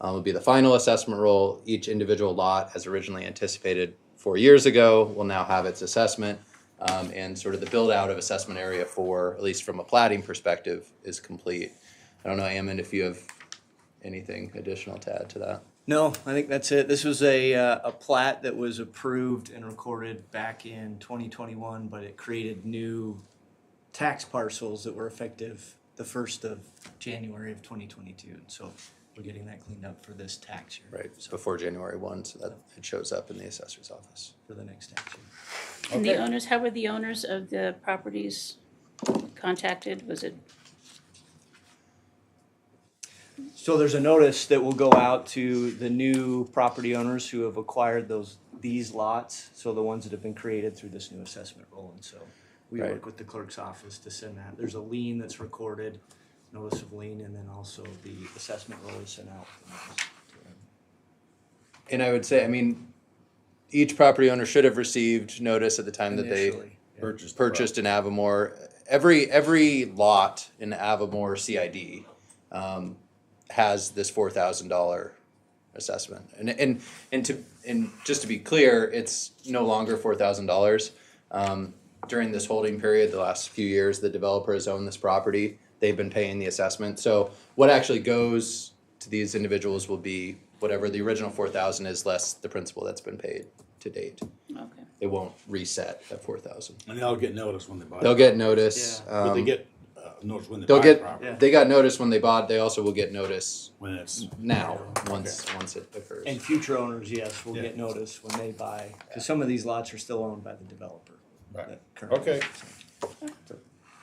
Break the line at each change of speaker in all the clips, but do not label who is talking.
um, will be the final assessment roll. Each individual lot, as originally anticipated four years ago, will now have its assessment. Um, and sort of the build out of assessment area for, at least from a plating perspective, is complete. I don't know, Ammon, if you have anything additional to add to that.
No, I think that's it. This was a, uh, a plat that was approved and recorded back in 2021, but it created new tax parcels that were effective the 1st of January of 2022. And so we're getting that cleaned up for this tax year.
Right, it's before January one, so that it shows up in the assessor's office.
For the next tax year.
And the
Okay.
owners, how were the owners of the properties contacted? Was it,
So there's a notice that will go out to the new property owners who have acquired those, these lots. So the ones that have been created through this new assessment roll. And so we
Right.
work with the clerk's office to send that. There's a lien that's recorded, notice of lien, and then also the assessment roll is sent out.
And I would say, I mean, each property owner should have received notice at the time that they
Initially, yeah.
Purchased. the
purchased in Avamore. Every, every lot in Avamore CID um, has this four thousand dollar assessment. And, and, and to, and just to be clear, it's no longer four thousand dollars. Um, During this holding period, the last few years, the developer has owned this property. They've been paying the assessment. So what actually goes to these individuals will be whatever the original four thousand is less the principal that's been paid to date.
okay.
It won't reset at four thousand.
And they'll get notice when they buy.
They'll
it.
get notice.
Yeah.
But they
um,
get uh, notice when they
They'll
buy the
get.
property.
Yeah.
They got notice when they bought. They also will get notice
When it's
now once once it occurs.
And future owners, yes, will
Yeah.
get notice when they buy, because some of these lots are still owned by the developer.
Right.
that currently-
Okay.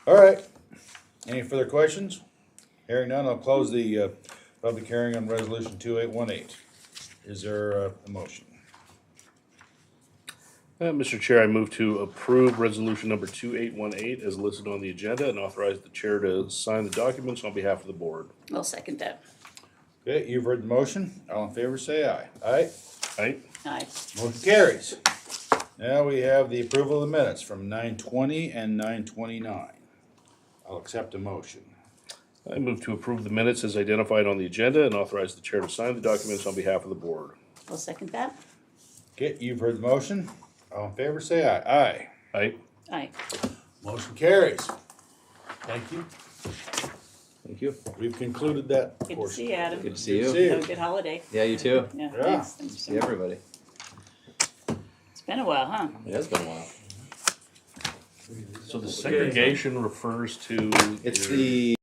all right. Any further questions? Hearing none, I'll close the uh, public hearing on resolution two eight one eight. Is there uh, a motion?
Uh, Mr. Chair, I move to approve resolution number 2818 as listed on the agenda and authorize the chair to sign the documents on behalf of the board.
I'll second that.
Okay, you've heard the motion. All in favor, say aye. Aye.
Right?
Aye.
Motion carries. Now we have the approval of the minutes from nine twenty and nine twenty-nine. I'll accept a motion.
I move to approve the minutes as identified on the agenda and authorize the chair to sign the documents on behalf of the board.
I'll second that.
Okay, you've heard the motion. All in favor, say aye. Aye.
Right?
Aye.
Motion carries. Thank you.
Thank you.
We've concluded that
Good to
portion.
see you, Adam.
Good to see
Good
you.
to see you.
Have a good holiday.
Yeah, you too.
Yeah,
Yeah.
thanks. Thanks for
See
so much.
everybody.
It's been a while, huh?
It has been a while.
So the segregation refers to.
It's
your-
the